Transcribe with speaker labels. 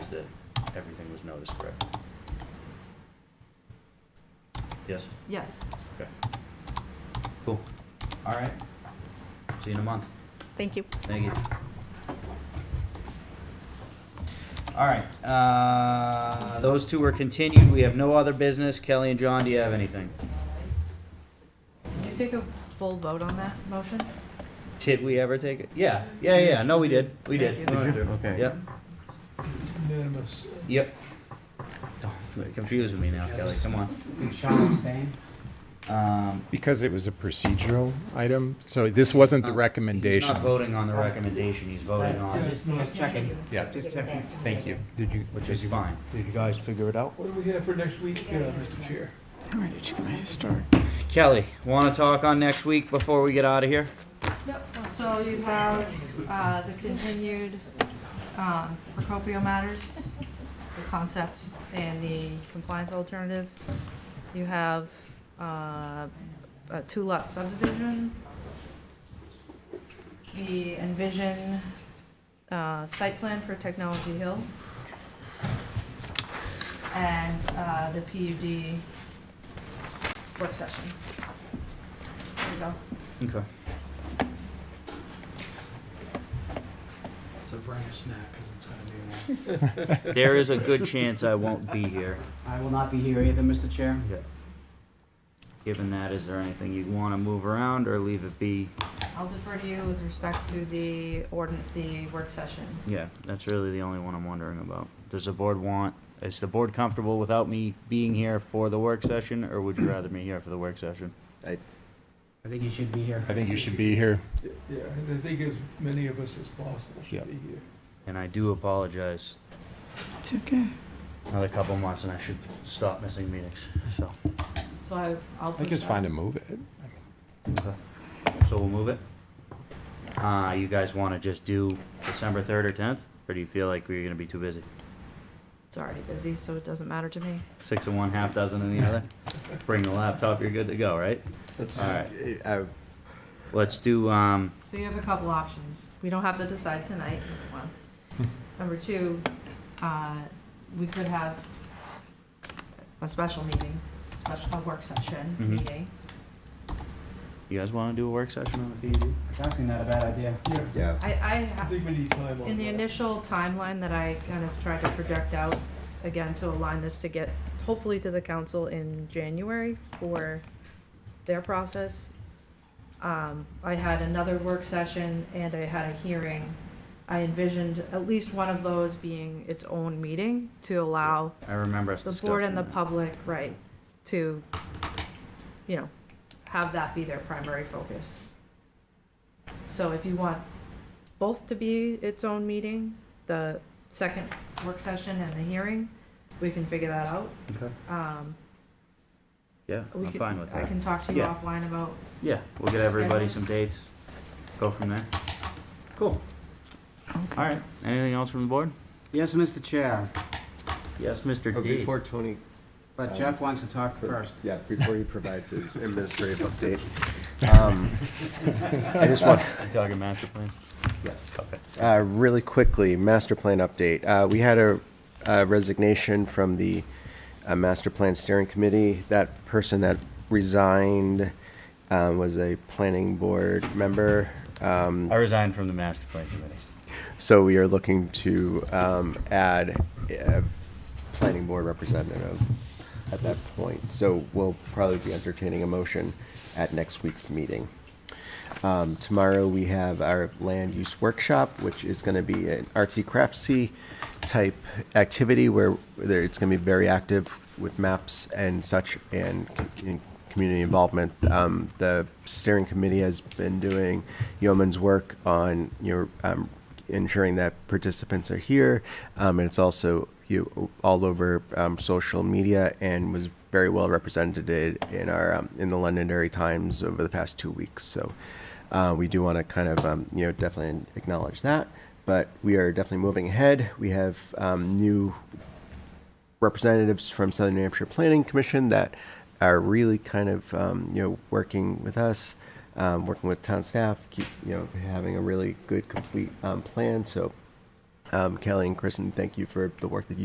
Speaker 1: everything was noticed, correct? Yes?
Speaker 2: Yes.
Speaker 1: Okay. Cool. All right. See you in a month.
Speaker 3: Thank you.
Speaker 1: Thank you. All right, uh, those two are continued. We have no other business. Kelly and John, do you have anything?
Speaker 2: Can you take a full vote on that motion?
Speaker 1: Did we ever take it? Yeah, yeah, yeah. No, we did. We did.
Speaker 2: Thank you.
Speaker 4: Okay.
Speaker 1: Yep,
Speaker 5: Unanimous.
Speaker 1: yep. Oh, You're confusing me now, Kelly. Come on.
Speaker 6: Sean abstain?
Speaker 1: Um,
Speaker 7: Because it was a procedural item, so this wasn't the
Speaker 1: Uh, He's
Speaker 7: recommendation.
Speaker 1: not voting on the recommendation. He's voting on,
Speaker 6: Just checking.
Speaker 7: Yeah.
Speaker 6: Just checking.
Speaker 7: Thank you.
Speaker 4: Did you,
Speaker 1: which is fine.
Speaker 4: did you guys figure it out?
Speaker 5: What do we have for next week, uh, Mr. Chair?
Speaker 1: Kelly, want to talk on next week before we get out of here?
Speaker 2: Yep, so you have uh, the continued um, Procopio matters, the concept and the compliance alternative. You have uh, a two-lot subdivision, the Envision uh, site plan for Technology Hill, and uh, the PUD work session. There you go.
Speaker 1: Okay.
Speaker 6: So bring a snack, because it's gonna be long.
Speaker 1: There is a good chance I won't be here.
Speaker 6: I will not be here either, Mr. Chair.
Speaker 1: Okay. Given that, is there anything you want to move around or leave it be?
Speaker 2: I'll defer to you with respect to the ordin, the work session.
Speaker 1: Yeah, that's really the only one I'm wondering about. Does the board want, is the board comfortable without me being here for the work session, or would you rather me here for the work session?
Speaker 6: I think you should be here.
Speaker 7: I think you should be here.
Speaker 5: Yeah, and I think as many of us as possible
Speaker 7: Yep.
Speaker 5: should be here.
Speaker 1: And I do apologize. It's okay. Another couple months and I should stop missing meetings, so.
Speaker 2: So I, I'll.
Speaker 7: I think it's fine to move it.
Speaker 1: Okay. So we'll move it. Uh, you guys wanna just do December third or tenth, or do you feel like we're gonna be too busy?
Speaker 2: It's already busy, so it doesn't matter to me.
Speaker 1: Six and one, half dozen in the other? Bring the laptop, you're good to go, right? All right.
Speaker 8: Uh,
Speaker 1: Let's do, um,
Speaker 2: So you have a couple options. We don't have to decide tonight, number one. Number two, uh, we could have a special meeting, special, a work session
Speaker 1: Mhm.
Speaker 2: meeting.
Speaker 1: you guys wanna do a work session on the PUD?
Speaker 6: It's actually not a bad idea.
Speaker 5: Yeah,
Speaker 2: I, I,
Speaker 5: I
Speaker 2: ha-
Speaker 5: think we need time on
Speaker 2: in the
Speaker 5: that.
Speaker 2: initial timeline that I kind of tried to project out, again, to align this to get hopefully to the council in January for their process. Um, I had another work session and I had a hearing. I envisioned at least one of those being its own meeting to allow
Speaker 1: I remember us
Speaker 2: the
Speaker 1: discussing
Speaker 2: board and the
Speaker 1: that.
Speaker 2: public, right, to, you know, have that be their primary focus. So if you want both to be its own meeting, the second work session and the hearing, we can figure that out.
Speaker 1: Okay.
Speaker 2: Um,
Speaker 1: Yeah,
Speaker 2: we
Speaker 1: I'm
Speaker 2: could-
Speaker 1: fine with
Speaker 2: I
Speaker 1: that.
Speaker 2: can talk to you
Speaker 1: Yeah.
Speaker 2: offline about,
Speaker 1: Yeah, we'll get everybody
Speaker 2: Schedule.
Speaker 1: some dates, go from there. Cool. All right, anything else from the board?
Speaker 6: Yes, Mr. Chair,
Speaker 1: Yes, Mr.
Speaker 8: Oh,
Speaker 1: D.
Speaker 8: Before Tony, uh,
Speaker 6: but Jeff wants to talk first.
Speaker 8: yeah, before he provides his administrative update, um, I just want,
Speaker 1: You talking master plan?
Speaker 8: yes.
Speaker 1: Okay.
Speaker 8: Uh, Really quickly, master plan update. Uh, We had a a resignation from the uh, Master Plan Steering Committee. That person that resigned uh, was a planning board member. Um,
Speaker 1: I resigned from the master plan committee.
Speaker 8: So we are looking to um, add a planning board representative at that point. So we'll probably be entertaining a motion at next week's meeting. Um, Tomorrow, we have our land use workshop, which is going to be an artsy craftsy type activity where there- it's going to be very active with maps and such and c- in community involvement. Um, The steering committee has been doing yeoman's work on your um, ensuring that participants are here. Um, and it's also you all over um, social media and was very well represented in our um, in the Londonderry Times over the past two weeks. So uh, we do want to kind of um, you know definitely acknowledge that. But we are definitely moving ahead. We have um, new representatives from Southern New Hampshire Planning Commission that are really kind of um, you know working with us, um, working with town staff, keep you know having a really good complete um, plan. So um, Kelly and Kristen, thank you for the work that you.